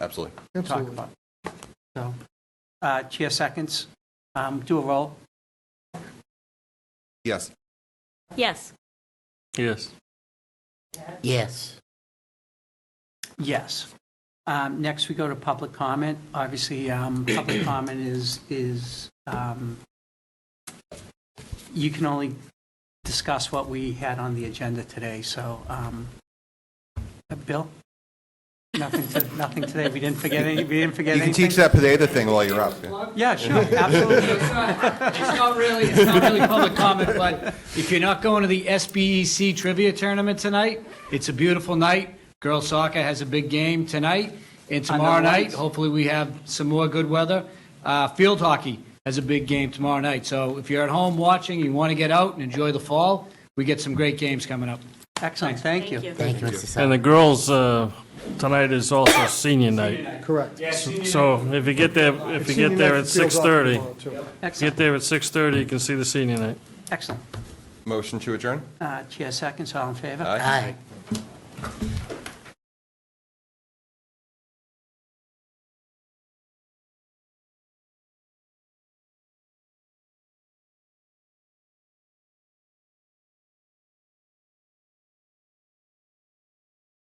Absolutely. talk Absolutely. about. So, uh, Chair seconds, Um, do a roll. Yes. Yes. Yes. Yes. Yes. Um, Next, we go to public comment. Obviously, um, public comment is, is, um, you can only discuss what we had on the agenda today, so, um, uh, Bill? Nothing, to- nothing today. We didn't forget any, we didn't forget You can anything? teach that Pineda thing while you're up. yeah. Yeah, sure, absolutely. It's not- it's not really, it's not really public comment, but if you're not going to the SBEC trivia tournament tonight, it's a beautiful night. Girls soccer has a big game tonight, and tomorrow night, lights. hopefully we have some more good weather. Uh, Field hockey has a big game tomorrow night, so if you're at home watching, you want to get out and enjoy the fall, we get some great games coming up. Excellent, thank you. Thank you, Mr. Sal. And the girls, uh, tonight is also senior night. Correct. So if you get there, if you get there at 6:30, get Excellent, there at 6:30, you can see the senior night. excellent. Motion to adjourn? Uh, Chair seconds, all in favor? Aye. Aye.